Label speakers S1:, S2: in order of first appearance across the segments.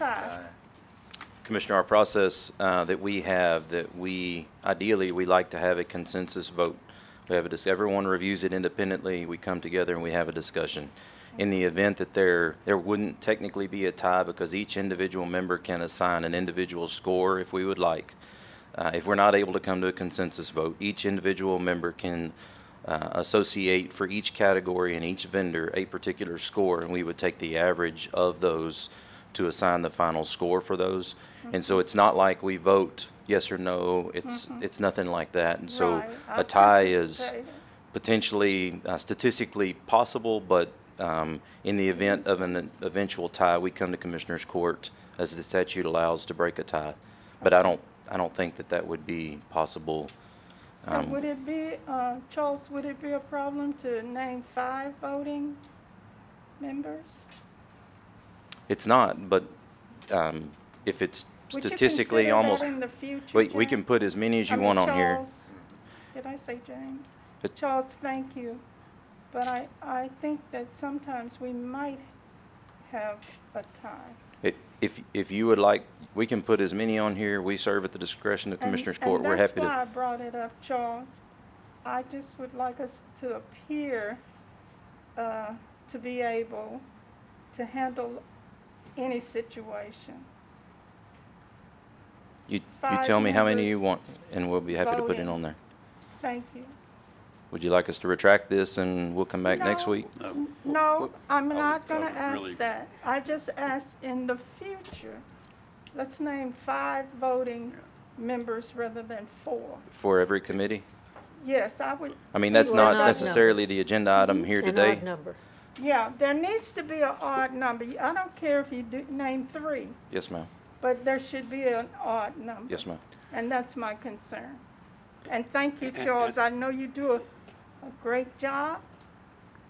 S1: Aye.
S2: Commissioner, our process uh, that we have, that we, ideally, we like to have a consensus vote. We have a, dis- everyone reviews it independently, we come together and we have a discussion. In the event that there, there wouldn't technically be a tie because each individual member can assign an individual score if we would like. Uh, If we're not able to come to a consensus vote, each individual member can uh, associate for each category and each vendor a particular score, and we would take the average of those to assign the final score for those. And
S1: Mm-hmm.
S2: so it's not like we vote yes or no, it's, it's nothing like that. And so
S1: Right. I
S2: a tie
S1: think it's uh,
S2: is
S1: safe.
S2: potentially uh, statistically possible, but um, in the event of an eventual tie, we come to Commissioners Court as the statute allows to break a tie. But I don't, I don't think that that would be possible.
S1: So
S2: um,
S1: would it be, uh, Charles, would it be a problem to name five voting members?
S2: It's not, but um, if it's
S1: Would you
S2: statistically
S1: consider that
S2: almost,
S1: in the future,
S2: we, we can
S1: James?
S2: put as many as
S1: I
S2: you
S1: mean,
S2: want on here.
S1: Charles- Did I say James?
S2: But-
S1: Charles, thank you. But I, I think that sometimes we might have a tie.
S2: If, if- if you would like, we can put as many on here. We serve at the discretion of
S1: And-
S2: Commissioners Court. We're happy
S1: And that's why I
S2: to.
S1: brought it up, Charles. I just would like us to appear uh, to be able to handle any situation.
S2: You, you
S1: five
S2: tell me how many you
S1: members
S2: want, and we'll be happy to put it
S1: voting.
S2: on there.
S1: Thank you.
S2: Would you like us to retract this and we'll come back next
S1: No.
S2: week?
S1: N- No, I'm
S3: Uh, I
S1: not
S3: would-
S1: going
S3: I
S1: to
S3: would really-
S1: ask that. I just asked in the future, let's name five voting members rather than four.
S2: For every committee?
S1: Yes, I would,
S2: I mean, that's
S4: You are
S2: not
S4: not
S2: necessarily the agenda item here
S4: An
S2: today.
S4: odd number.
S1: yeah, there needs to be an odd number. I don't care if you do, name three,
S2: Yes, ma'am.
S1: but there should be an odd number.
S2: Yes, ma'am.
S1: And that's my concern. And thank you, Charles. I know you do a, a great job.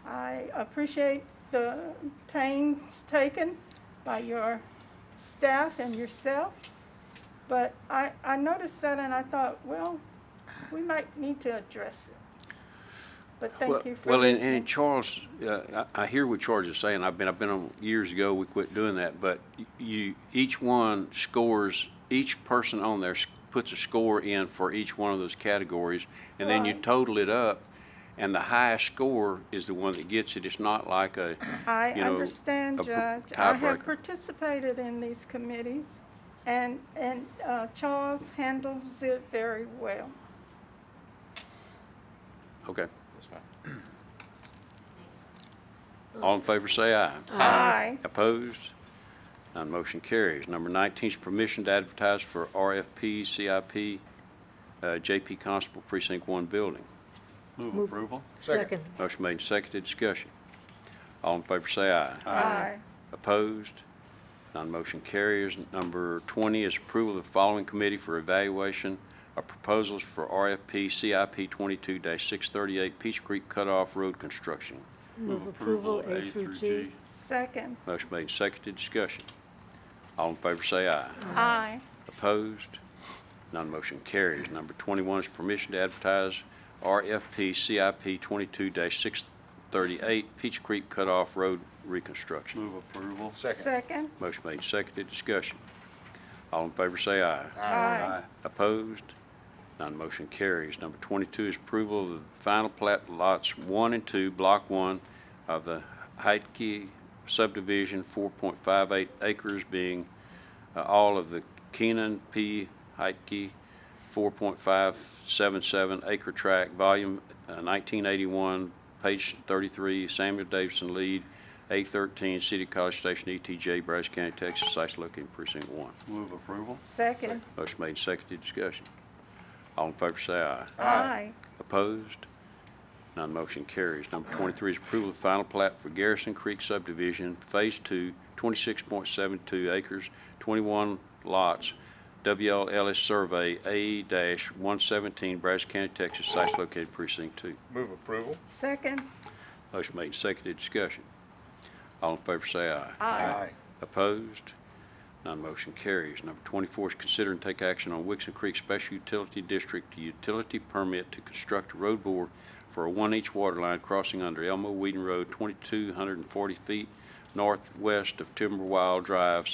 S1: I appreciate the pains taken by your staff and yourself. But I, I noticed that and I thought, well, we might need to address it. But
S3: Well-
S1: thank you for
S3: Well, and,
S1: listening.
S3: and Charles, uh, I, I hear what Charles is saying. I've been, I've been on, years ago, we quit doing that, but you, each one scores, each person on there s- puts a score in for each one of those categories, and then you
S1: Right.
S3: total it up, and the highest score is the one that gets it. It's not like a,
S1: I
S3: you know,
S1: understand,
S3: a pr-
S1: Judge. I have
S3: tiebreaker.
S1: participated in these committees, and, and uh, Charles handles it very well.
S3: okay. All in favor, say aye.
S1: Aye.
S3: Opposed? None motion carries. Number 19 is permission to advertise for RFP, CIP, uh, JP Constable Precinct 1 building.
S5: Move approval?
S4: Second.
S3: Motion made and seconded, discussion. All in favor say aye.
S1: Aye.
S3: Opposed? None motion carries. Number 20 is approval of the following committee for evaluation of proposals for RFP CIP 22-638 Peach Creek Cutoff Road Construction.
S4: Move approval A through G.
S1: Second.
S3: Motion made and seconded, discussion. All in favor say aye.
S1: Aye.
S3: Opposed? None motion carries. Number 21 is permission to advertise RFP CIP 22-638 Peach Creek Cutoff Road Reconstruction.
S5: Move approval?
S1: Second.
S3: Motion made, seconded, discussion. All in favor say aye.
S1: Aye.
S3: Opposed? None motion carries. Number 22 is approval of the final plat lots 1 and 2, Block 1 of the Heidke subdivision, 4.58 acres being uh, all of the Keenan P. Heidke 4.577 acre tract, volume uh, 1981, page 33, Samuel Davidson lead, A13, City College Station, E ETJ, Brazos County, Texas, sites located in precinct 1.
S5: Move approval?
S1: Second.
S3: Motion made, and seconded, discussion. All in favor say aye.
S1: Aye.
S3: Opposed? None motion carries. Number 23 is approval of final plat for Garrison Creek subdivision, Phase 2, 26.72 acres, 21 lots, WLS Survey A-117, Brazos County, Texas, sites located precinct 2.
S5: Move approval?
S1: Second.
S3: Motion made, and seconded, discussion. All in favor say aye.
S1: Aye.
S3: Opposed? None motion carries. Number 24 is consider and take action on Wixon Creek Special Utility District Utility Permit to construct a road bore for a one-inch water line crossing under Elmo Whedon Road, 2,240 feet northwest of Timberwild Drive,